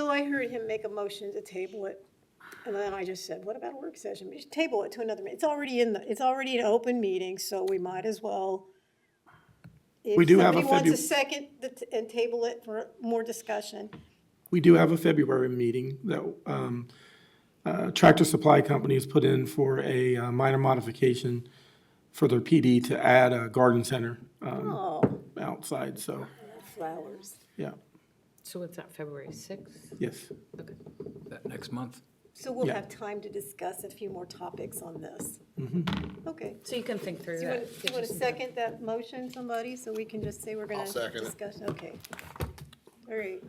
I heard him make a motion to table it, and then I just said, what about a work session? We should table it to another, meeting. it's already in the, it's already an open meeting, so we might as well. We do have a If somebody Febu- wants a second the t- and table it for more discussion, We do have a February meeting that um, uh, Tractor Supply Company has put in for a uh, minor modification for their PD to add a garden center um, oh, outside, so, flowers. yeah, So what's that, February 6th? yes. that next month. So we'll Yeah. have time to discuss a few more topics on this. Mm-hmm. Okay. So you can think through Do you that. want, you want to second that motion, somebody, so we can just say we're gonna I'll second it. discuss, okay. All right,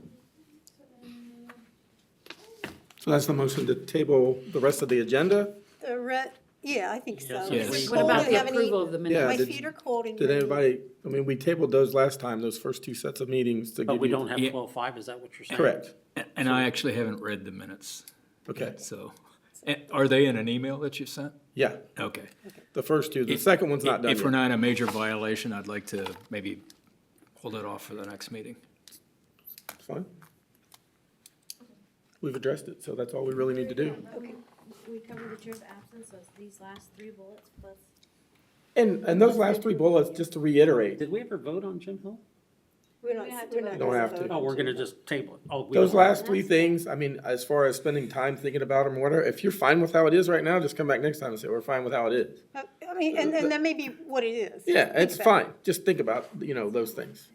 So that's the motion to table the rest of the agenda. the re, yeah, I think so. Yes. Is it What cold? about Do you the have any- approval of the Yeah, My minutes? did- feet are cold and. Did you're- anybody, I mean, we tabled those last time, those first two sets of meetings to give you. But we don't have Yeah. twelve five, is that what you're saying? Correct, A- And I actually haven't read the minutes, okay, so, A- are they in an email that you sent? yeah, Okay. the first two, the second one's not done If we're yet. not in a major violation, I'd like to maybe hold it off for the next meeting. Fine. We've addressed it, so that's all we really need to do. Okay. We covered the chair of absence, so it's these last three bullets plus. And, and those last three bullets, just to reiterate, Did we ever vote on Jim Hill? We're not, We have to we're not. vote. Don't gonna have to. vote. No, Oh, we're gonna just table it. Oh, we those don't- last three things, I mean, as far as spending time thinking about them, or whatever, if you're fine with how it is right now, just come back next time and say, we're fine with how it is. Uh, I mean, and, and that may be what it is. Yeah, it's Exactly. fine, just think about, you know, those things.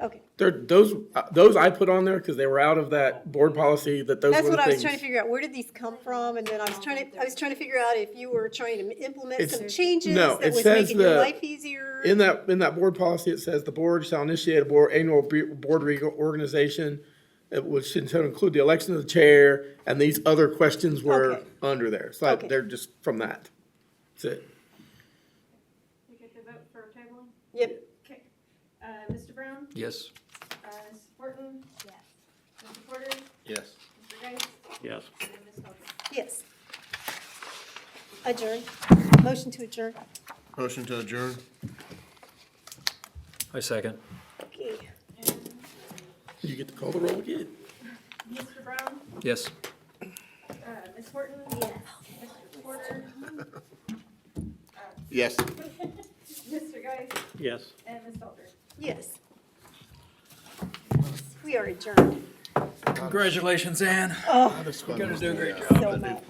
Okay, They're, those, uh, those I put on there because they were out of that board policy that those were that's the what things. I was trying to figure out, where did these come from, and then I was trying to, I was trying to figure out if you were trying to implement It's- some changes no, that it was says making your the- life easier. In that, in that board policy, it says the board shall initiate a board, annual be- board reorganization, uh, which should include the election of the chair, and these other questions were Okay. under there. So I- Okay. they're just from that. That's it. We get the vote for tabling? Yep, Okay. Uh, Mr. Brown? Yes? Uh, Ms. Horton? Yes. Mr. Porter? Yes. Mr. Geis? Yes. And Ms. Hogan. yes. Adjourn, motion to adjourn. Motion to adjourn? I second. Okay. You get to call the roll again. Mr. Brown? Yes? Uh, Ms. Horton? Yes. Mr. Porter? Yes. Mr. Geis? Yes. And Ms. Hogan. Yes. We are adjourned. Congratulations, Anne. Oh, You're gonna do a great job. so much.